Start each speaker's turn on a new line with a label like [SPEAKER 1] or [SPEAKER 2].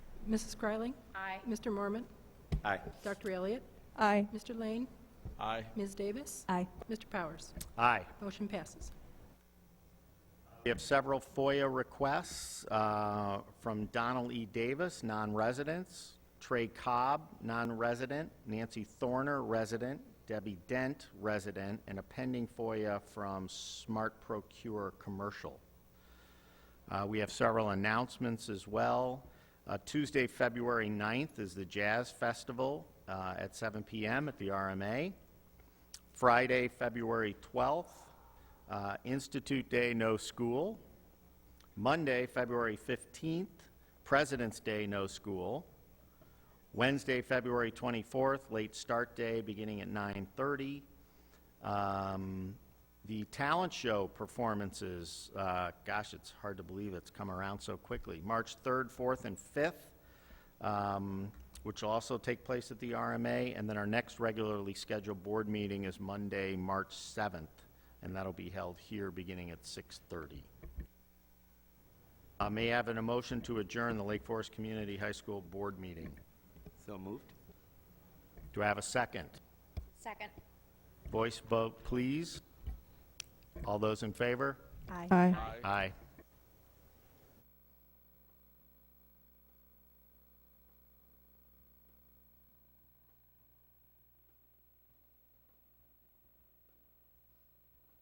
[SPEAKER 1] Mrs. Fryling?
[SPEAKER 2] Aye.
[SPEAKER 1] Mr. Mormon?
[SPEAKER 3] Aye.
[SPEAKER 1] Dr. Elliott?
[SPEAKER 4] Aye.
[SPEAKER 1] Mr. Lane?
[SPEAKER 3] Aye.
[SPEAKER 1] Ms. Davis?
[SPEAKER 4] Aye.
[SPEAKER 1] Mr. Powers?
[SPEAKER 3] Aye.
[SPEAKER 1] Motion passes.
[SPEAKER 3] We have several FOIA requests uh, from Donald E. Davis, non-residents, Trey Cobb, non-resident, Nancy Thorner, resident, Debbie Dent, resident, and a pending FOIA from Smart Procure Commercial. Uh, We have several announcements as well. Uh, Tuesday, February 9th is the Jazz Festival uh, at 7 PM at the RMA. Friday, February 12th, uh, Institute Day, no school. Monday, February 15th, President's Day, no school. Wednesday, February 24th, late start day, beginning at 9:30. Um, The talent show performances, uh, gosh, it's hard to believe it's come around so quickly. March 3rd, 4th, and 5th, um, which will also take place at the RMA. And then our next regularly scheduled board meeting is Monday, March 7th, and that'll be held here beginning at 6:30. Uh, May I have an emotion to adjourn the Lake Forest Community High School Board meeting?
[SPEAKER 5] So moved?
[SPEAKER 3] Do I have a second?
[SPEAKER 2] Second.
[SPEAKER 3] Voice vote, please. All those in favor?
[SPEAKER 4] Aye.
[SPEAKER 3] Aye.